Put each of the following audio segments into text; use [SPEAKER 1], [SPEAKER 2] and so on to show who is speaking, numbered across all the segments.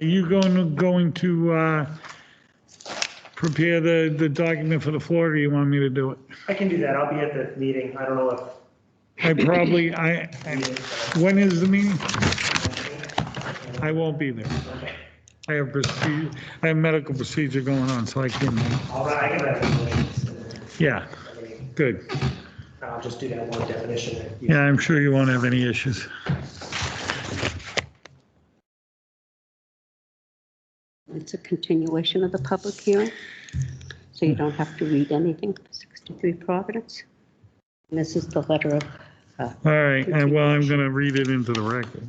[SPEAKER 1] Are you going, to- going to uh, prepare the, the document for the floor, or you want me to do it?
[SPEAKER 2] I can do that. I'll be at the meeting. I don't know if.
[SPEAKER 1] I probably, I, when is the meeting? I won't be there. I have procedure, I have medical procedure going on, so I can,
[SPEAKER 2] All right, I can have it.
[SPEAKER 1] yeah,
[SPEAKER 2] I mean,
[SPEAKER 1] good.
[SPEAKER 2] I'll just do that one definition. that you-
[SPEAKER 1] Yeah, I'm sure you won't have any issues.
[SPEAKER 3] It's a continuation of the public hearing, so you don't have to read anything for 63 Providence. And this is the letter of, uh,
[SPEAKER 1] All right, and well, I'm going to read it into the record.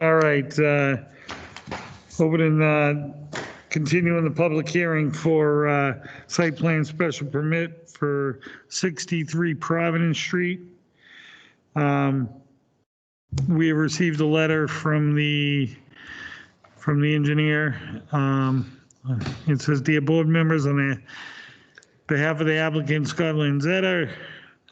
[SPEAKER 1] All right, uh, opening, uh, continuing the public hearing for uh, site plan special permit for 63 Providence Street. Um, We have received a letter from the, from the engineer. Um, It says, "Dear board members, on the behalf of the applicant Scott Lanzetta,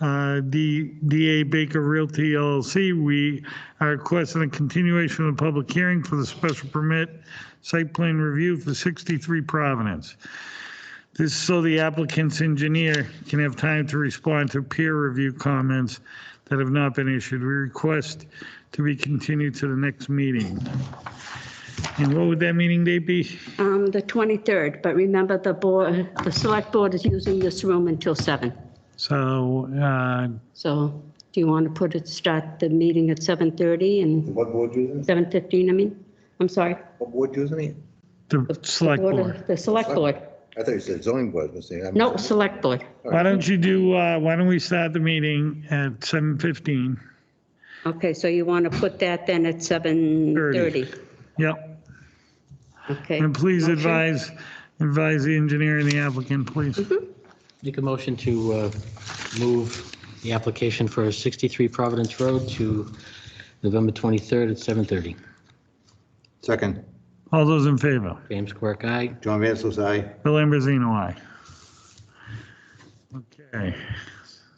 [SPEAKER 1] uh, D- DA Baker Realty LLC, we are requesting a continuation of the public hearing for the special permit site plan review for 63 Providence. This is so the applicant's engineer can have time to respond to peer review comments that have not been issued. We request to be continued to the next meeting. And what would that meeting date be?
[SPEAKER 3] um, the 23rd, but remember the board, the select board is using this room until 7.
[SPEAKER 1] So, uh,
[SPEAKER 3] So do you want to put it, start the meeting at 7:30 and
[SPEAKER 4] What board using it?
[SPEAKER 3] 7:15, I mean? I'm sorry.
[SPEAKER 4] What board using it?
[SPEAKER 1] the select
[SPEAKER 3] Board of-
[SPEAKER 1] board.
[SPEAKER 3] The select board.
[SPEAKER 4] I thought you said zoning board, I was saying. I'm-
[SPEAKER 3] No, select board.
[SPEAKER 1] Why don't you do, uh, why don't we start the meeting at 7:15?
[SPEAKER 3] Okay, so you want to put that then at 7:30?
[SPEAKER 1] Yep,
[SPEAKER 3] Okay.
[SPEAKER 1] and please
[SPEAKER 3] Motion?
[SPEAKER 1] advise, advise the engineer and the applicant, please.
[SPEAKER 5] Make a motion to uh, move the application for 63 Providence Road to November 23rd at 7:30.
[SPEAKER 4] Second,
[SPEAKER 1] All those in favor?
[SPEAKER 5] James Quirk, aye.
[SPEAKER 4] John Vansel's aye.
[SPEAKER 1] Bill Ambrosino, aye. Okay,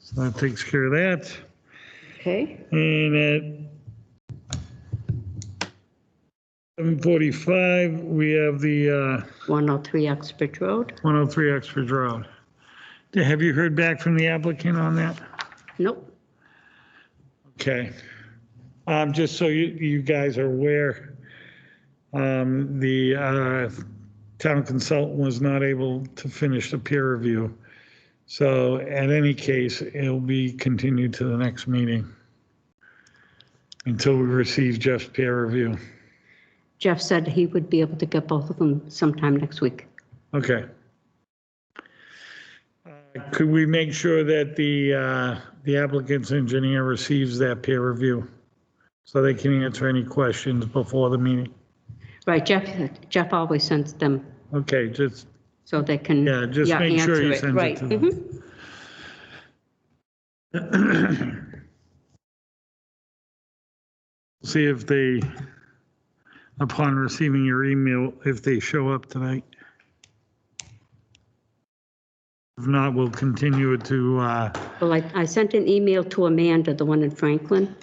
[SPEAKER 1] so that takes care of that.
[SPEAKER 3] Okay,
[SPEAKER 1] And at 7:45, we have the uh,
[SPEAKER 3] 103 Oxbridge oh Road.
[SPEAKER 1] 103 Oxford Road. Have you heard back from the applicant on that?
[SPEAKER 3] Nope.
[SPEAKER 1] Okay. Um, Just so you, you guys are aware, um, the uh, town consultant was not able to finish the peer review. So at any case, it'll be continued to the next meeting until we receive Jeff's peer review.
[SPEAKER 3] Jeff said he would be able to get both of them sometime next week.
[SPEAKER 1] Okay. Uh, Could we make sure that the, uh, the applicant's engineer receives that peer review? So they can answer any questions before the meeting?
[SPEAKER 3] Right, Jeff, Jeff always sends them
[SPEAKER 1] Okay, just,
[SPEAKER 3] so they can.
[SPEAKER 1] Yeah, just make sure
[SPEAKER 3] answer
[SPEAKER 1] he sends it
[SPEAKER 3] Right,
[SPEAKER 1] to them.
[SPEAKER 3] mhm.
[SPEAKER 1] see if they, upon receiving your email, if they show up tonight. If not, we'll continue it to, uh,
[SPEAKER 3] Well, I, I sent an email to Amanda, the one in Franklin.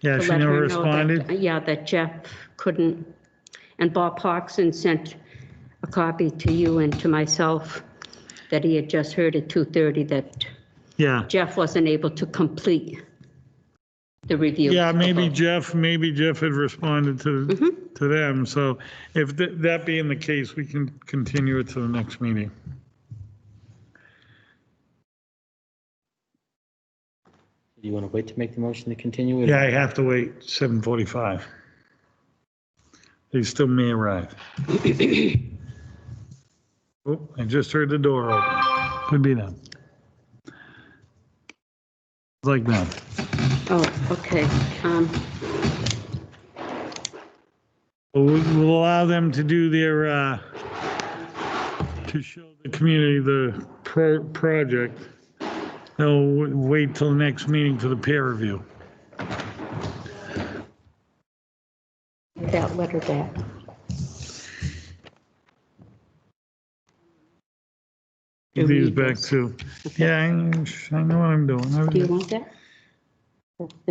[SPEAKER 1] yeah,
[SPEAKER 3] to
[SPEAKER 1] she
[SPEAKER 3] let
[SPEAKER 1] never
[SPEAKER 3] her know that-
[SPEAKER 1] responded.
[SPEAKER 3] Yeah, that Jeff couldn't. And Bob Parkson sent a copy to you and to myself that he had just heard at 2:30 that
[SPEAKER 1] Yeah.
[SPEAKER 3] Jeff wasn't able to complete the review.
[SPEAKER 1] Yeah, maybe Jeff, maybe Jeff had responded to,
[SPEAKER 3] Mm-hmm.
[SPEAKER 1] to them. So if th- that being the case, we can continue it to the next meeting.
[SPEAKER 5] Do you want to wait to make the motion to continue? it?
[SPEAKER 1] Yeah, I have to wait 7:45. They still may arrive. Oh, I just heard the door open. Could be them. Like that.
[SPEAKER 3] Oh, okay. Um,
[SPEAKER 1] We'll we'll allow them to do their, uh, to show the community the pro- project. They'll w- wait till the next meeting for the peer review.
[SPEAKER 3] That letter back.
[SPEAKER 1] Give these back to, yeah, I I know what I'm doing. I was-
[SPEAKER 3] Do you want that?